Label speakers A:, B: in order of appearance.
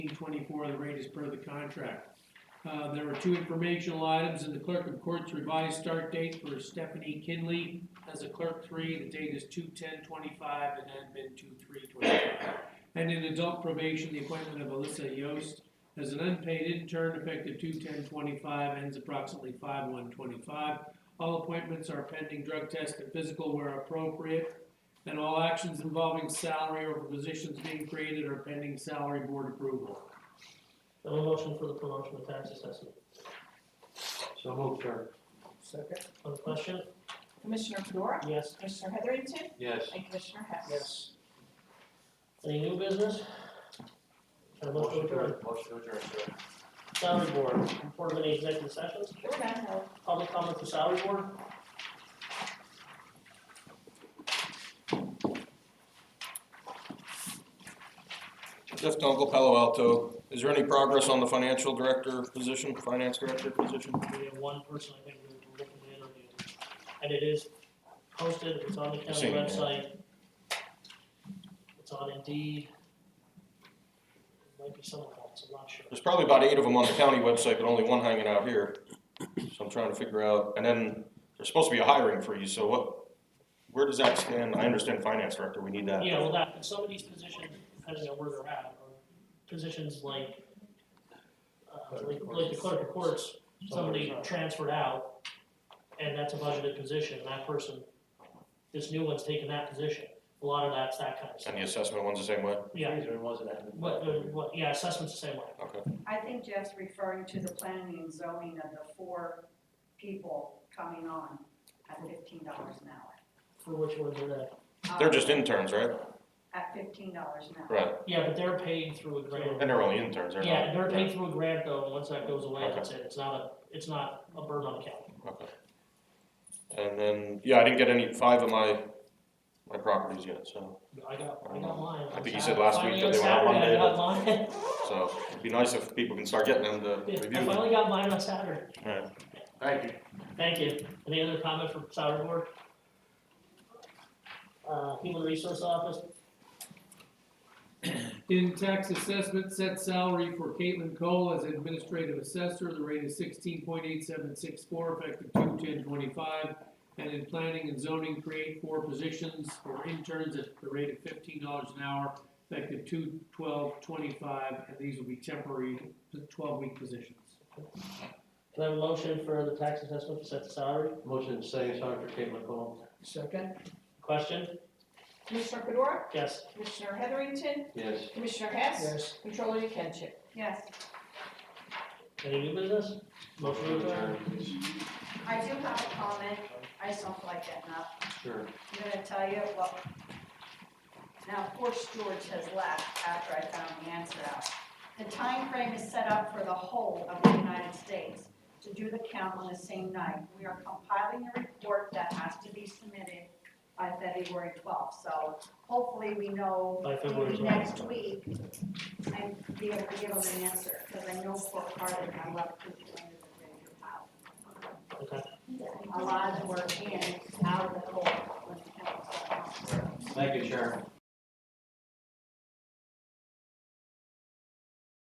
A: 24, the rate is per the contract. Uh, There were two informational items in the clerk of court's revised start date for Stephanie Kinley as a clerk three. The date is 2/10/25 and admin 2/3/25. And in adult probation, the appointment of Alyssa Yost as an unpaid intern effective 2/10/25 ends approximately 5/1/25. All appointments are pending drug test and physical where appropriate. And all actions involving salary or positions being created are pending salary board approval.
B: Have a motion for the promotion of tax assessment.
C: So moved, sir.
A: Second.
B: On the question?
D: Commissioner Fedora,
B: Yes.
D: Commissioner Heatherington,
C: Yes.
D: and Commissioner Hess.
B: Yes. Any new business? Have a motion
C: Motion
B: to
C: to
B: adjourn.
C: adjourn, motion to adjourn, sir.
B: Salary board, report of any executive sessions,
D: There were none held.
B: public comment for salary board?
E: Jeff Dunkel, Palo Alto. Is there any progress on the financial director position, finance director position?
B: We have one person I think we were looking to interview. And it is posted, it's on the county
E: Seen it, yeah.
B: website. It's on Indeed. It Might be someone else, I'm not sure.
E: There's probably about eight of them on the county website, but only one hanging out here. So I'm trying to figure out, and then there's supposed to be a hiring freeze, so what, where does that stand? I understand finance director, we need that.
B: Yeah, well, that, and some of these positions, depending on where they're at, are positions like, uh, like like the clerk of courts, somebody transferred out, and that's a budgeted position, and that person, this new one's taking that position. A lot of that's that kind of
E: And
B: stuff.
E: the assessment one's the same way?
B: Yeah,
C: Freezer wasn't having-
B: what, uh, what, yeah, assessment's the same way.
E: Okay.
F: I think Jeff's referring to the planning and zoning of the four people coming on at fifteen dollars an hour.
B: For which ones are that?
E: They're
F: Um,
E: just interns, right?
F: At fifteen dollars an hour.
E: Right.
B: Yeah, but they're paid through a grant.
E: And they're only interns, they're not.
B: Yeah, they're
E: right.
B: paid through a grant though, and once that goes away, that's it, it's not a, it's not a burden on the county.
E: Okay. And then, yeah, I didn't get any, five of my, my properties yet, so,
B: I got, I got mine.
E: I think you said last week that they
B: Finally,
E: went out
B: on
E: one
B: Saturday, I
E: day,
B: got mine.
E: so it'd be nice if people can start getting them to
B: Yeah,
E: review
B: I
E: them.
B: finally got mine on Saturday.
E: Alright.
C: Thank you.
B: Thank you. Any other comment from salary board? Uh, human resource office,
A: In tax assessment, set salary for Caitlin Cole as administrative assessor, the rate is sixteen point eight seven six four, effective two ten twenty-five. And in planning and zoning, create four positions for interns at the rate of fifteen dollars an hour, effective two twelve twenty-five, and these will be temporary twelve-week positions.
B: can I have a motion for the tax assessment to set the salary?
C: Motion second, sorry for Caitlin Cole.
B: Second. Question?
D: Commissioner Fedora,
B: Yes.
D: Commissioner Heatherington,
C: Yes.
D: Commissioner Hess. Controller Yekenship.
F: Yes,
B: Any new business? Motion to adjourn?
C: please.
F: I do have a comment. I just don't like that enough.
C: Sure.
F: I'm gonna tell you, well, now, of course, George has left after I found the answer out. The time frame is set up for the whole of the United States to do the count on the same night. We are compiling a report that has to be submitted by February twelfth, so hopefully we know
B: By February 12th.
F: maybe next week, I'd be able to give them an answer, because I know for a part of my left people under the radio pile.
B: Okay.
F: A lot of the work in, out of the hole, when it comes to-
C: Thank you, Sharon.